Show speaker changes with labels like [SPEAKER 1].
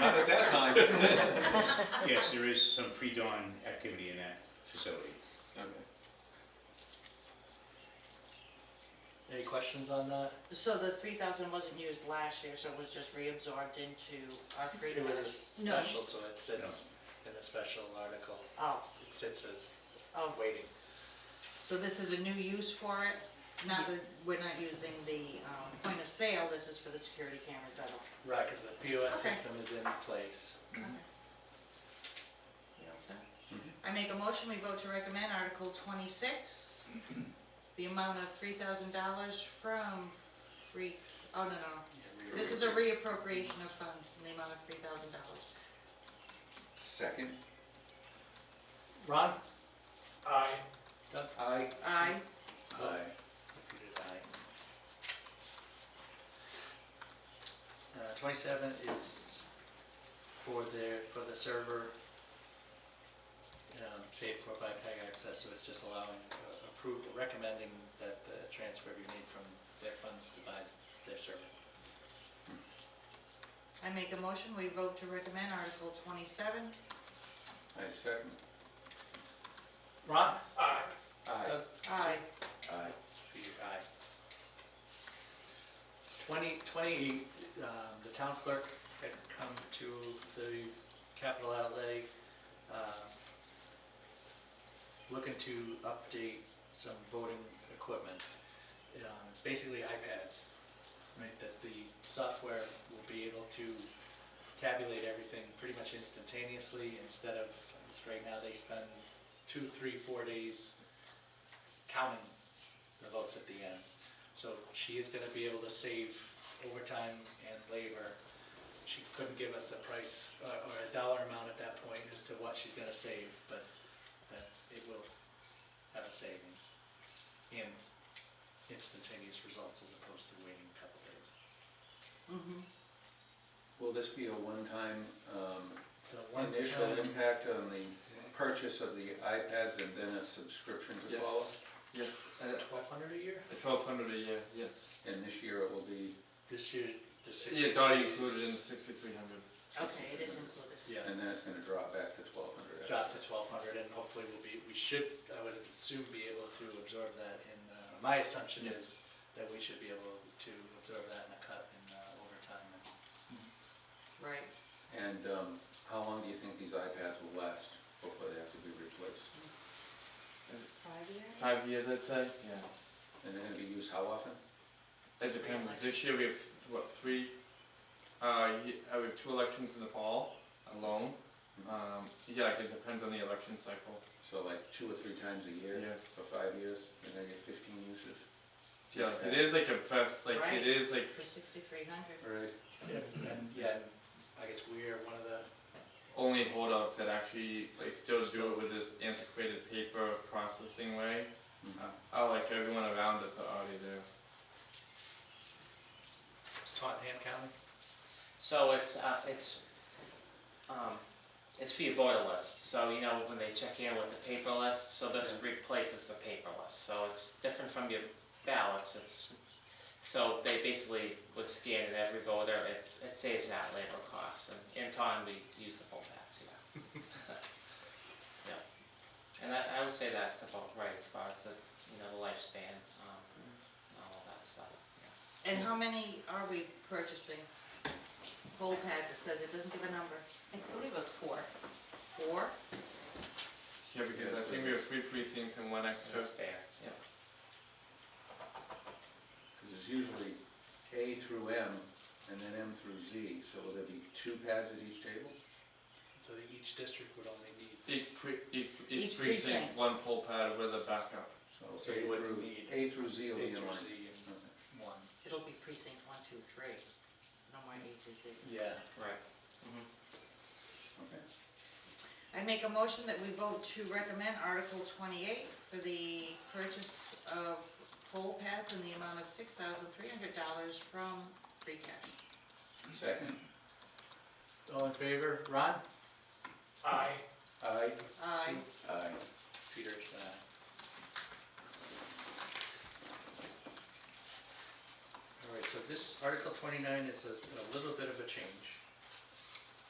[SPEAKER 1] Not at that time.
[SPEAKER 2] Yes, there is some pre-dawn activity in that facility.
[SPEAKER 1] Okay.
[SPEAKER 3] Any questions on that?
[SPEAKER 4] So the three thousand wasn't used last year, so it was just reabsorbed into our free
[SPEAKER 3] It was a
[SPEAKER 4] cash?
[SPEAKER 5] No.
[SPEAKER 3] special, so it sits in the special article.
[SPEAKER 4] Oh,
[SPEAKER 3] It sits as
[SPEAKER 4] oh,
[SPEAKER 3] waiting.
[SPEAKER 4] so this is a new use for it? Not that, we're not using the, um, point of sale, this is for the security cameras that'll.
[SPEAKER 3] Right, because the POS
[SPEAKER 4] Okay.
[SPEAKER 3] system is in place.
[SPEAKER 4] You all set? I make a motion, we vote to recommend Article twenty-six, the amount of three thousand dollars from free, oh, no, no. This is a reappropriation of funds in the amount of three thousand dollars.
[SPEAKER 1] Second?
[SPEAKER 3] Ron? Aye.
[SPEAKER 1] Aye.
[SPEAKER 4] Aye.
[SPEAKER 1] Aye.
[SPEAKER 3] Uh, twenty-seven is for their, for the server, um, paid for by PEG Access, so it's just allowing, uh, approve, recommending that the transfer you need from their funds to buy their server.
[SPEAKER 4] I make a motion, we vote to recommend Article twenty-seven.
[SPEAKER 1] I second.
[SPEAKER 3] Ron? Aye.
[SPEAKER 1] Aye.
[SPEAKER 3] Doug?
[SPEAKER 4] Aye.
[SPEAKER 1] Aye.
[SPEAKER 3] Peter, aye. Twenty, twenty-eight, um, the town clerk had come to the capital outlay, um, looking to update some voting equipment, um, basically iPads, right, that the software will be able to tabulate everything pretty much instantaneously instead of, right now, they spend two, three, four days counting the votes at the end. So she is gonna be able to save overtime and labor. She couldn't give us a price uh, or a dollar amount at that point as to what she's gonna save, but that it will have a savings and instantaneous results as opposed to waiting a couple days.
[SPEAKER 4] Mhm.
[SPEAKER 1] Will this be a one-time um,
[SPEAKER 3] So one
[SPEAKER 1] initial
[SPEAKER 3] time,
[SPEAKER 1] impact on the purchase of the iPads and then a subscription to
[SPEAKER 6] Yes.
[SPEAKER 1] follow?
[SPEAKER 6] Yes, uh,
[SPEAKER 3] twelve hundred a year?
[SPEAKER 6] twelve hundred a year, yes.
[SPEAKER 1] And this year it will be,
[SPEAKER 3] This year, the six.
[SPEAKER 6] Yeah, it's already included in the sixty-three hundred.
[SPEAKER 4] Okay, it is included.
[SPEAKER 3] Yeah.
[SPEAKER 1] and then it's gonna drop back to twelve hundred.
[SPEAKER 3] drop to twelve hundred, and hopefully we'll be, we should, I would assume, be able to absorb that in, uh, my assumption is
[SPEAKER 6] Yes.
[SPEAKER 3] that we should be able to absorb that in a cut in uh, overtime.
[SPEAKER 4] Right.
[SPEAKER 1] And um, how long do you think these iPads will last before they have to be replaced?
[SPEAKER 5] Five years?
[SPEAKER 6] Five years, I'd say, yeah.
[SPEAKER 1] And they're gonna be used how often?
[SPEAKER 6] That depends, this year we have, what, three, uh, ye- uh, we have two elections in the fall alone. Um, yeah, like it depends on the election cycle.
[SPEAKER 1] So like two or three times a year
[SPEAKER 6] Yeah.
[SPEAKER 1] for five years, and they get fifteen uses?
[SPEAKER 6] Yeah, like, it is like a best, like,
[SPEAKER 4] Right.
[SPEAKER 6] it is like,
[SPEAKER 4] For sixty-three hundred.
[SPEAKER 1] Right.
[SPEAKER 3] And, and, yeah, and I guess we are one of the,
[SPEAKER 6] only holdouts that actually, like, still do it with this antiquated paper processing way. Uh, uh, like everyone around us are already there.
[SPEAKER 3] it's Taunton County,
[SPEAKER 7] So it's, uh, it's, um, it's for your voter list, so you know, when they check in with the paper list, so this replaces the paper list, so it's different from your ballots, it's, so they basically would scan it every voter, it, it saves that labor cost, and in time, we use the full tax, yeah. Yeah, and I, I would say that's about right as far as the, you know, the lifespan, um, and all of that stuff, yeah.
[SPEAKER 4] And how many are we purchasing? Whole pads, it says, it doesn't give a number.
[SPEAKER 5] I believe it was four.
[SPEAKER 4] Four?
[SPEAKER 6] Yeah, because I think we have three precincts and one extra.
[SPEAKER 7] That's fair, yeah.
[SPEAKER 1] Because it's usually A through M and then M through Z, so will there be two pads at each table?
[SPEAKER 3] so that each district would only need,
[SPEAKER 6] Each, pre- each,
[SPEAKER 4] Each
[SPEAKER 6] each
[SPEAKER 4] precinct.
[SPEAKER 6] precinct, one poll pad with a backup.
[SPEAKER 3] So
[SPEAKER 1] A
[SPEAKER 3] you wouldn't
[SPEAKER 1] through-
[SPEAKER 3] need
[SPEAKER 1] A through Z will be
[SPEAKER 3] A
[SPEAKER 1] in
[SPEAKER 3] through
[SPEAKER 1] line.
[SPEAKER 3] Z
[SPEAKER 1] Okay.
[SPEAKER 3] and one.
[SPEAKER 4] It'll be precinct one, two, three. No more A through Z.
[SPEAKER 3] Yeah.
[SPEAKER 7] Right.
[SPEAKER 1] Okay.
[SPEAKER 4] I make a motion that we vote to recommend Article twenty-eight for the purchase of pole pads in the amount of six thousand three hundred dollars from free cash.
[SPEAKER 1] Second,
[SPEAKER 3] All in favor, Ron? Aye.
[SPEAKER 1] aye?
[SPEAKER 4] Aye.
[SPEAKER 1] Aye.
[SPEAKER 3] Peter, uh, aye. All right, so this Article 29 is a a little bit of a change.